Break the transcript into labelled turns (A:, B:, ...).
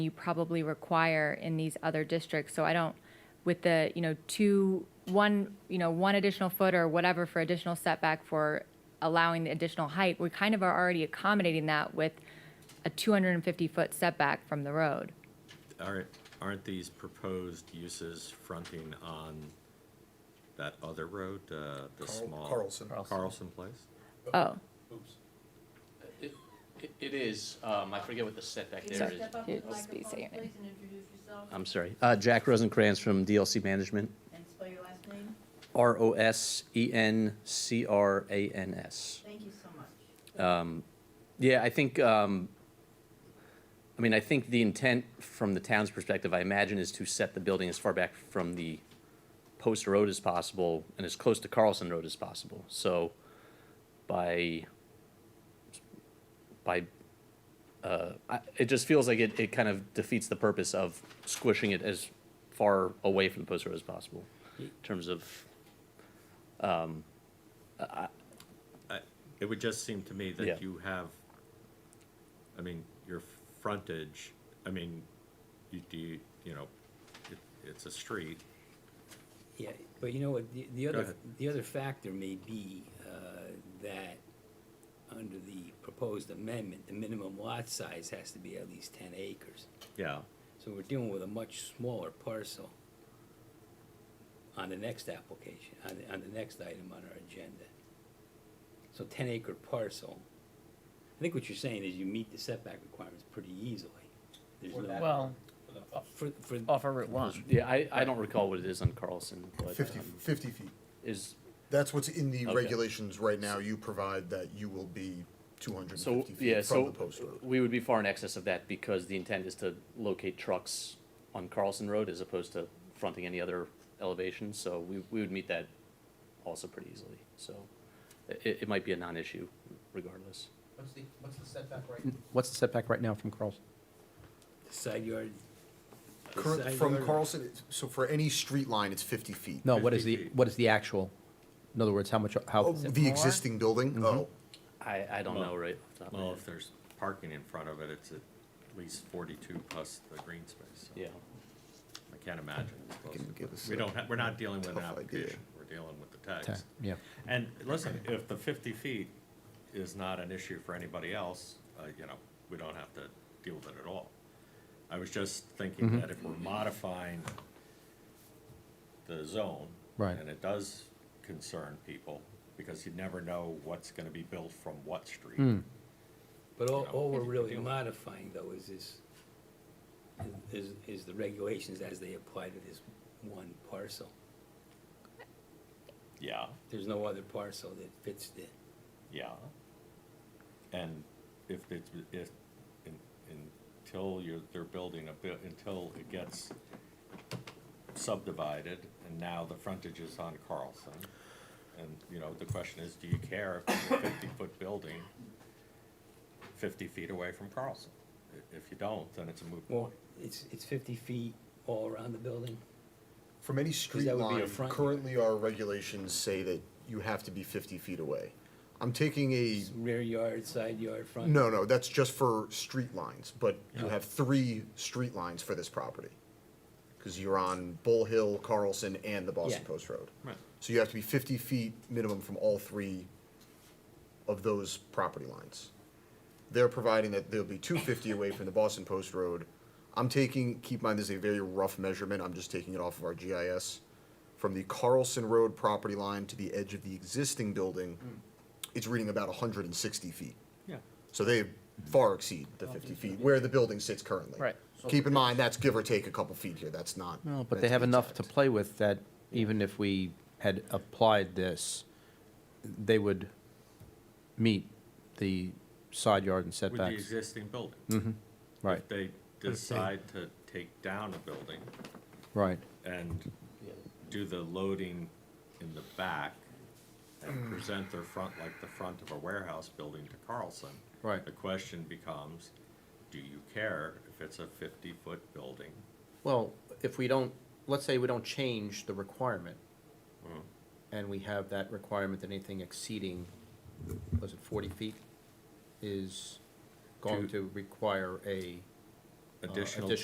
A: you probably require in these other districts. So I don't, with the, you know, two, one, you know, one additional foot or whatever for additional setback for allowing the additional height, we kind of are already accommodating that with a 250-foot setback from the road.
B: Aren't, aren't these proposed uses fronting on that other road, uh, the
C: Carl-
B: small?
C: Carlson. Carlson.
B: Carlson Place?
A: Oh,
D: It- it- It is, um, I forget what the setback
E: Can you
D: there is.
E: step up
A: Yeah,
E: to the
A: just be- say your
E: microphone,
A: name.
E: please, and introduce yourself
D: I'm sorry. Uh, Jack Rosencrans from DLC Management,
E: and spell your last name?
D: E R-O-S-E-N-C-R-A-N-S.
E: Thank you so much.
D: Yeah, I think, um, I mean, I think the intent from the town's perspective, I imagine, is to set the building as far back from the post road as possible and as close to Carlson Road as possible. So by, by, uh, I, it just feels like it, it kind of defeats the purpose of squishing it as far away from the post road as possible in terms of,
B: I- It would just seem to me
D: Yeah.
B: that you have, I mean, your frontage, I mean, you do, you- you know, it, it's a street.
F: Yeah, but you know what, the, the
B: Go
F: other,
B: ahead.
F: the other factor may be, uh, that under the proposed amendment, the minimum lot size has to be at least ten acres.
B: Yeah.
F: So we're dealing with a much smaller parcel on the next application, on, the- on the next item on our agenda. So ten acre parcel, I think what you're saying is you meet the setback requirements pretty easily. There's no-
G: Well,
F: For, for,
G: off of Route One.
D: yeah, I, I don't recall what it is on Carlson, but.
C: 50,
D: um,
C: 50 feet.
D: Is,
C: That's what's in the
D: Okay.
C: regulations right now. You provide that you will be 250
D: So,
C: feet
D: yeah,
C: from the
D: so
C: post road.
D: we would be far in excess of that because the intent is to locate trucks on Carlson Road as opposed to fronting any other elevation, so we, we would meet that also pretty easily, so i- it, it might be a non-issue regardless.
H: What's the, what's the setback right? What's the setback right now from Carlson?
F: the side yard. the
C: Current-
F: side
C: from
F: yard-
C: Carlson, it's- so for any street line, it's 50 feet.
H: No, what is
B: 50
H: the,
B: feet.
H: what is the actual, in other words, how much,
C: Oh,
H: how,
C: the existing building? Oh,
D: I, I don't know,
B: Well-
D: right? off the top of my
B: Well,
D: head.
B: if there's parking in front of it, it's at least forty-two plus the green space. so
D: Yeah,
B: I can't imagine. it's close
C: Can
B: to-
C: give us
B: We
C: a
B: don't, ha- we're not dealing with an
C: tough idea.
B: application, we're dealing with the
H: ta-
B: text.
H: yeah,
B: And listen, if the fifty feet is not an issue for anybody else, uh, you know, we don't have to deal with it at all. I was just thinking that if we're modifying the zone.
H: Right.
B: And it does concern people, because you never know what's gonna be built from what street.
F: But all, all we're really
B: Yeah.
F: modifying though is this, is, is the regulations as they apply to this one parcel.
B: Yeah,
F: There's no other parcel that fits the,
B: yeah. And if it's, if, in- until you're, they're building a bit, until it gets subdivided, and now the frontage is on Carlson. And, you know, the question is, do you care if it's a fifty-foot building fifty feet away from Carlson? I- If you don't, then it's a moot
F: well,
B: point.
F: it's, it's fifty feet all around the building.
C: From any street
F: that would be a
C: line,
F: front yard.
C: currently our regulations say that you have to be 50 feet away. I'm taking a,
F: Rear yard, side yard, front.
C: no, no, that's just for street lines, but you have three street lines for this property. Because you're on Bull Hill, Carlson, and the Boston
F: Yeah.
C: Post Road.
B: Right.
C: So you have to be 50 feet minimum from all three of those property lines. They're providing that they'll be 250 away from the Boston Post Road. I'm taking, keep in mind, this is a very rough measurement, I'm just taking it off of our GIS. From the Carlson Road property line to the edge of the existing building,
F: Hmm.
C: it's reading about 160 feet.
B: Yeah.
C: So they far exceed the 50 feet, where the building sits currently.
G: Right.
C: Keep in mind, that's give or take a couple feet here, that's not.
H: no,
C: meant
H: but they
C: to
H: have
C: be
H: enough to
C: exact.
H: play with that even if we had applied this, they would meet the side yard and
B: With the
H: setbacks, Mm,
B: existing building.
H: right,
B: If they decide to take down a building
H: right.
B: and
D: yeah,
B: do the loading in the back and present their front, like the front of a warehouse building to Carlson.
H: Right.
B: The question becomes, do you care if it's a fifty-foot building?
H: Well, if we don't, let's say we don't change the requirement, and we have that requirement that anything exceeding, was it forty feet, is going to require a
B: additional
H: additional